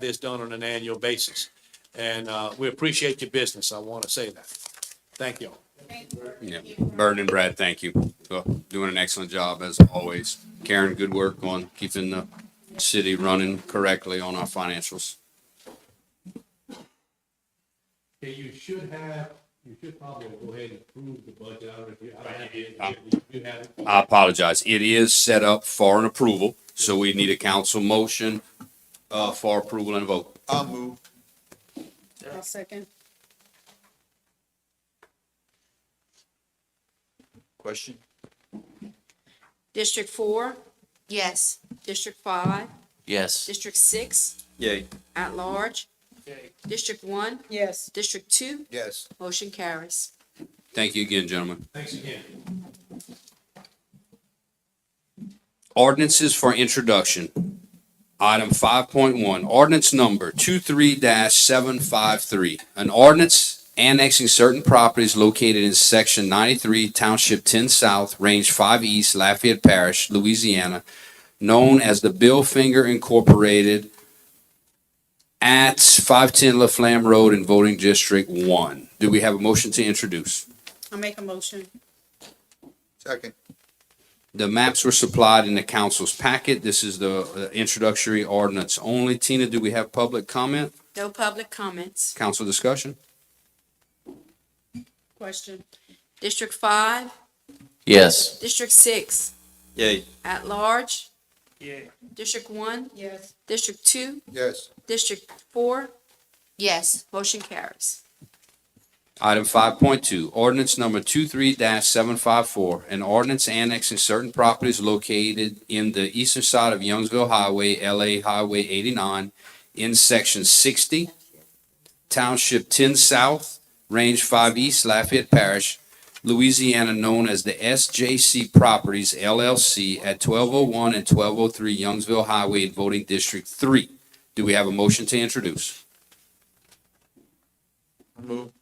this done on an annual basis. And uh, we appreciate your business. I want to say that. Thank you. Yeah, Bird and Brad, thank you. Well, Doing an excellent job as always. Karen, good work on keeping the city running correctly on our financials. Okay, you should have, you should probably go ahead and approve the budget, I don't know if you, I don't have it, Um, if you have it. I apologize. It is set up for an approval, so we need a council motion uh, for approval and vote. I'll move. I'll second. Question? District four? Yes. District five? Yes. District six? Yay. At large? District one? Yes. District two? Yes. Motion carries. Thank you again, gentlemen. Thanks again. Ordinances for introduction. Item five point one, ordinance number 23 seven five three. An ordinance annexing certain properties located in section ninety-three, township ten south, range five east, Lafayette Parish, Louisiana, known as the Bill Finger Incorporated at five ten Laflamme Road in voting district one. Do we have a motion to introduce? I'll make a motion. Second. The maps were supplied in the council's packet. This is the uh, introductory ordinance only. Tina, do we have public comment, No public comments. council discussion? Question. District five? Yes. District six? Yay. At large? Yeah. District one? Yes. District two? Yes. District four? Yes. Motion carries. Item five point two, ordinance number 23 seven five four, an ordinance annexing certain properties located in the eastern side of Youngsville Highway, LA Highway eighty-nine, in section sixty, township ten south, range five east, Lafayette Parish, Louisiana, known as the SJC Properties LLC at twelve oh one and twelve oh three Youngsville Highway in voting district three. Do we have a motion to introduce? Move.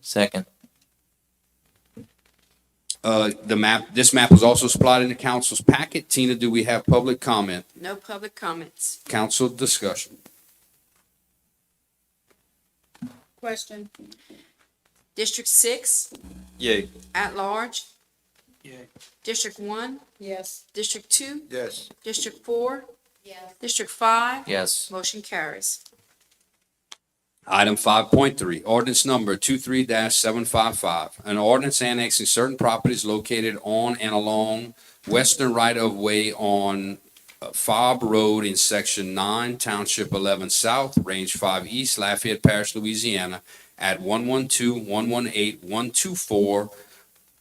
Second. Uh, the map, this map was also supplied in the council's packet. Tina, do we have public comment, No public comments. council discussion? Question. District six? Yay. At large? District one? Yes. District two? Yes. District four? Yes. District five? Yes. Motion carries. Item five point three, ordinance number two-three seven five five. An ordinance annexing certain properties located on and along western right-of-way on uh, Fobb Road in section nine, township eleven south, range five east, Lafayette Parish, Louisiana, at 112, 118, 124,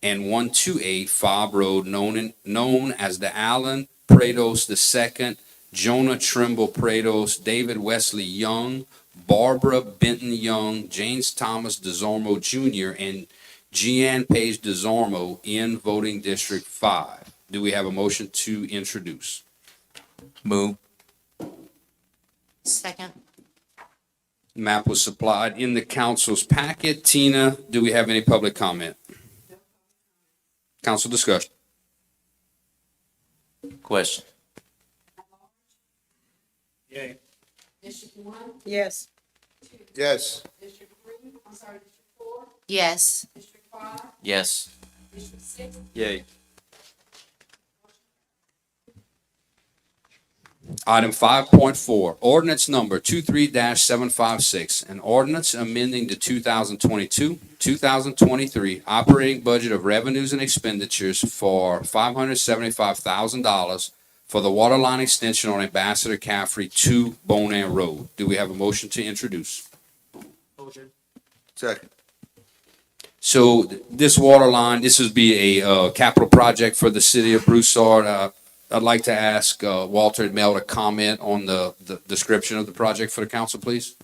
and one-two-eight Fobb Road, known in, known as the Allen Prados II, Jonah Trimble Prados, David Wesley Young, Barbara Benton Young, James Thomas DeZormo Jr., and Jeanne Page DeZormo in voting District Five. Do we have a motion to introduce? Move. Second. Map was supplied in the council's packet. Tina, do we have any public comment? Council discussion. Question. District one? Yes. Yes. District three, I'm sorry, district four? Yes. District five, Yes. district six? Yay. Item five point four, ordinance number 23 seven five six, an ordinance amending the two thousand twenty-two, two thousand twenty-three operating budget of revenues and expenditures for five hundred seventy-five thousand dollars for the water line extension on Ambassador Caffrey to Bonan Road. Do we have a motion to introduce? Second. So th- this water line, this would be a uh, capital project for the city of Broussard. Uh, I'd like to ask uh, Walter and Mel to comment on the the description of the project for the council, please.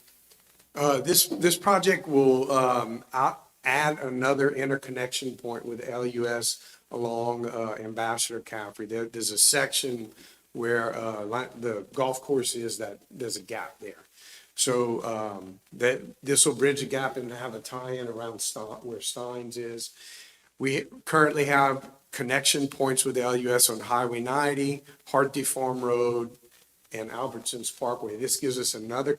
Uh, This, this project will um, out- add another interconnection point with LUS along uh, Ambassador Caffrey. There, there's a section where uh, li- the golf course is that, there's a gap there. So um, that, this will bridge the gap and have a tie-in around Stein- where Steins is. We currently have connection points with LUS on Highway 90, Hartley Farm Road, and Albertson's Parkway. This gives us another